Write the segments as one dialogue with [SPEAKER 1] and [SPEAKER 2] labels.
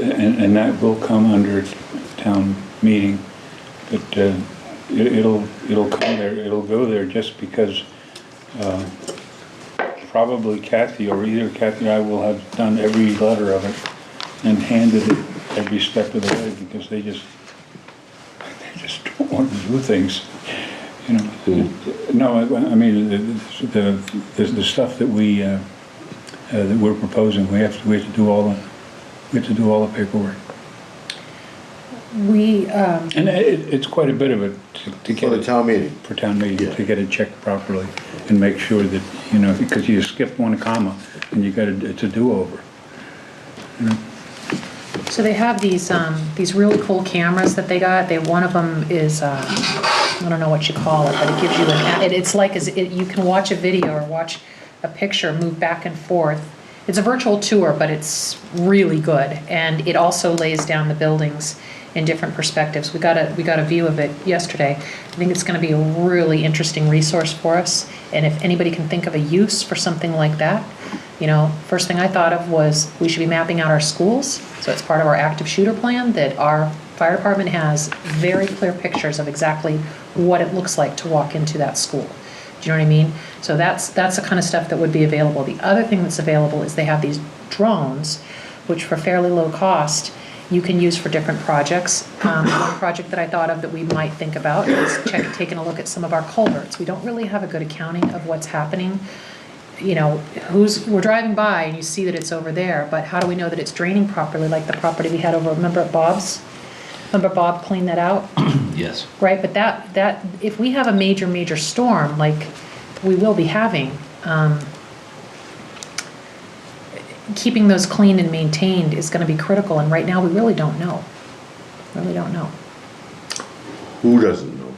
[SPEAKER 1] And, and that will come under town meeting, but uh, it- it'll, it'll come there, it'll go there just because uh, probably Kathy or either Kathy or I will have done every letter of it and handed it every step of the way because they just, they just don't want to do things, you know? No, I I mean, the- the, the, the stuff that we, uh, uh, that we're proposing, we have to, we have to do all the, we have to do all the paperwork.
[SPEAKER 2] We, um,
[SPEAKER 1] And it, it's quite a bit of it to- to
[SPEAKER 3] For
[SPEAKER 1] get
[SPEAKER 3] the
[SPEAKER 1] it,
[SPEAKER 3] town meeting.
[SPEAKER 1] for town meeting,
[SPEAKER 3] Yeah.
[SPEAKER 1] to get it checked properly and make sure that, you know, because you skip one comma and you got a, it's a do-over.
[SPEAKER 2] so they have these, um, these really cool cameras that they got. They, one of them is, uh, I don't know what you call it, but it gives you an, it, it's like, is, it, you can watch a video or watch a picture move back and forth. It's a virtual tour, but it's really good. And it also lays down the buildings in different perspectives. We got a, we got a view of it yesterday. I think it's gonna be a really interesting resource for us. And if anybody can think of a use for something like that, you know, first thing I thought of was we should be mapping out our schools. So it's part of our active shooter plan that our fire department has very clear pictures of exactly what it looks like to walk into that school. Do you know what I mean? So that's, that's the kind of stuff that would be available. The other thing that's available is they have these drones, which for fairly low cost, you can use for different projects. Um, One project that I thought of that we might think about is check, taking a look at some of our culverts. We don't really have a good accounting of what's happening you know, who's, we're driving by and you see that it's over there, but how do we know that it's draining properly, like the property we had over, remember at Bob's? Remember Bob cleaned that out?
[SPEAKER 4] Yes.
[SPEAKER 2] right? But that, that, if we have a major, major storm, like we will be having, um, keeping those clean and maintained is gonna be critical, and right now, we really don't know. Really don't know.
[SPEAKER 3] Who doesn't know?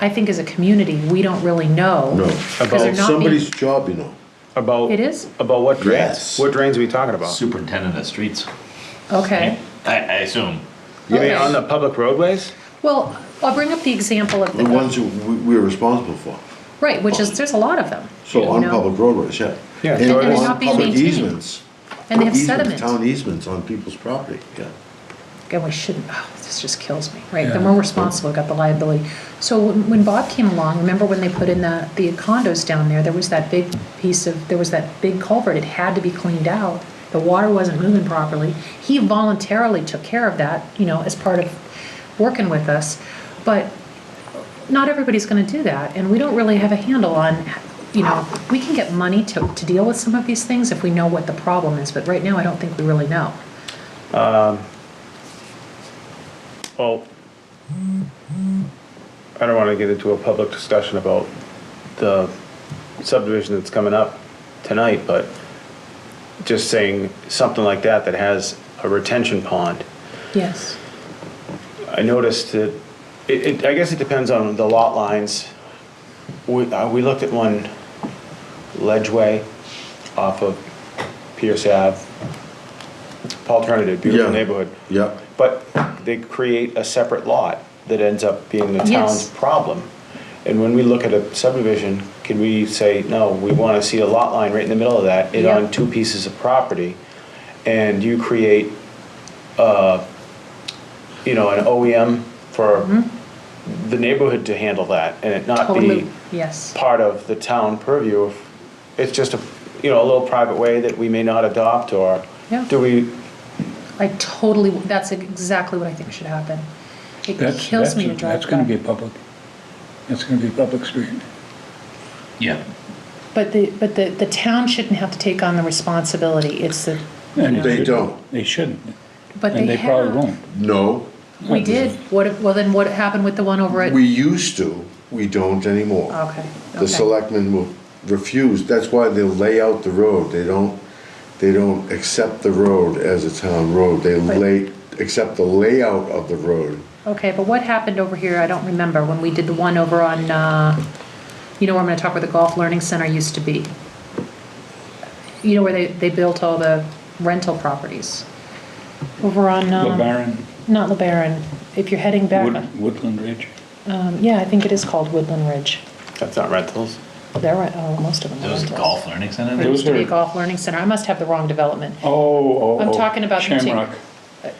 [SPEAKER 2] I think as a community, we don't really know.
[SPEAKER 3] No.
[SPEAKER 2] 'cause they're
[SPEAKER 3] It's
[SPEAKER 2] not being-
[SPEAKER 3] somebody's job, you know.
[SPEAKER 5] About.
[SPEAKER 2] It is?
[SPEAKER 5] About what drains?
[SPEAKER 3] Yes.
[SPEAKER 5] What drains are we talking about?
[SPEAKER 4] Superintendent of streets.
[SPEAKER 2] Okay.
[SPEAKER 4] I, I assume.
[SPEAKER 5] You mean
[SPEAKER 2] Okay.
[SPEAKER 5] on the public roadways?
[SPEAKER 2] Well, I'll bring up the example of the.
[SPEAKER 3] The ones who we- we're responsible for.
[SPEAKER 2] Right, which is, there's a lot of them.
[SPEAKER 3] So
[SPEAKER 2] you
[SPEAKER 3] on
[SPEAKER 2] know,
[SPEAKER 3] public roadways, yeah.
[SPEAKER 5] Yeah.
[SPEAKER 3] And
[SPEAKER 5] And they're
[SPEAKER 3] on
[SPEAKER 2] not being
[SPEAKER 3] public
[SPEAKER 2] maintained.
[SPEAKER 3] easements.
[SPEAKER 2] And they have
[SPEAKER 3] Easements,
[SPEAKER 2] sediment.
[SPEAKER 3] Town easements on people's property, yeah.
[SPEAKER 2] And we shouldn't, oh, this just kills me, right? Then we're responsible, we've got the liability. So when when Bob came along, remember when they put in the, the condos down there, there was that big piece of, there was that big culvert, it had to be cleaned out. The water wasn't moving properly. He voluntarily took care of that, you know, as part of working with us. But not everybody's going to do that, and we don't really have a handle on, you know, we can get money to, to deal with some of these things if we know what the problem is, but right now, I don't think we really know.
[SPEAKER 5] Well, I don't want to get into a public discussion about the subdivision that's coming up tonight, but just saying something like that that has a retention pond.
[SPEAKER 2] Yes.
[SPEAKER 5] I noticed that, it, it, I guess it depends on the lot lines. We, uh, we looked at one ledgeway off of Pierce Ave. Alternative, beautiful
[SPEAKER 3] Yeah.
[SPEAKER 5] neighborhood.
[SPEAKER 3] Yeah,
[SPEAKER 5] But they create a separate lot that ends up being the town's
[SPEAKER 2] Yes.
[SPEAKER 5] problem. And when we look at a subdivision, can we say, no, we want to see a lot line right in the middle of that, it
[SPEAKER 2] Yeah.
[SPEAKER 5] on two pieces of property? And you create, uh, you know, an OEM for the neighborhood to handle that and it not
[SPEAKER 2] Mm-hmm. Totally,
[SPEAKER 5] be
[SPEAKER 2] yes.
[SPEAKER 5] part of the town purview. of- It's just a, you know, a little private way that we may not adopt or
[SPEAKER 2] Yeah.
[SPEAKER 5] do we,
[SPEAKER 2] I totally, that's exactly what I think should happen. It
[SPEAKER 1] That's-
[SPEAKER 2] kills me to
[SPEAKER 1] that's-
[SPEAKER 2] drive
[SPEAKER 1] That's gonna be
[SPEAKER 2] by.
[SPEAKER 1] public, that's gonna be public street.
[SPEAKER 4] Yeah.
[SPEAKER 2] But the, but the, the town shouldn't have to take on the responsibility, it's the,
[SPEAKER 1] And it
[SPEAKER 3] they
[SPEAKER 1] should-
[SPEAKER 3] don't,
[SPEAKER 1] They shouldn't,
[SPEAKER 2] but they have.
[SPEAKER 1] and they probably won't.
[SPEAKER 3] no.
[SPEAKER 2] We did, what, well then what happened with the one over at?
[SPEAKER 3] We used to, we don't anymore.
[SPEAKER 2] Oh, Okay,
[SPEAKER 3] The
[SPEAKER 2] okay,
[SPEAKER 3] selectmen will refuse, that's why they lay out the road, they don't, they don't accept the road as a town road, they
[SPEAKER 2] Right.
[SPEAKER 3] lay, accept the layout of the road.
[SPEAKER 2] okay, but what happened over here, I don't remember, when we did the one over on, uh, you know where I'm gonna talk where the Golf Learning Center used to be? You know where they, they built all the rental properties? Over on, um.
[SPEAKER 1] LeBaron,
[SPEAKER 2] Not LeBaron, if you're heading back.
[SPEAKER 1] Wood- Woodland Ridge,
[SPEAKER 2] Um, yeah, I think it is called Woodland Ridge.
[SPEAKER 5] that's not rentals.
[SPEAKER 2] There are, oh, most of them
[SPEAKER 4] There
[SPEAKER 2] are.
[SPEAKER 4] was a
[SPEAKER 2] rentals.
[SPEAKER 4] golf learning center
[SPEAKER 2] There
[SPEAKER 4] there.
[SPEAKER 2] used to be a
[SPEAKER 1] Those are-
[SPEAKER 2] golf learning center. I must have the wrong development.
[SPEAKER 1] oh, oh, oh.
[SPEAKER 2] I'm talking about the.
[SPEAKER 1] Shamrock,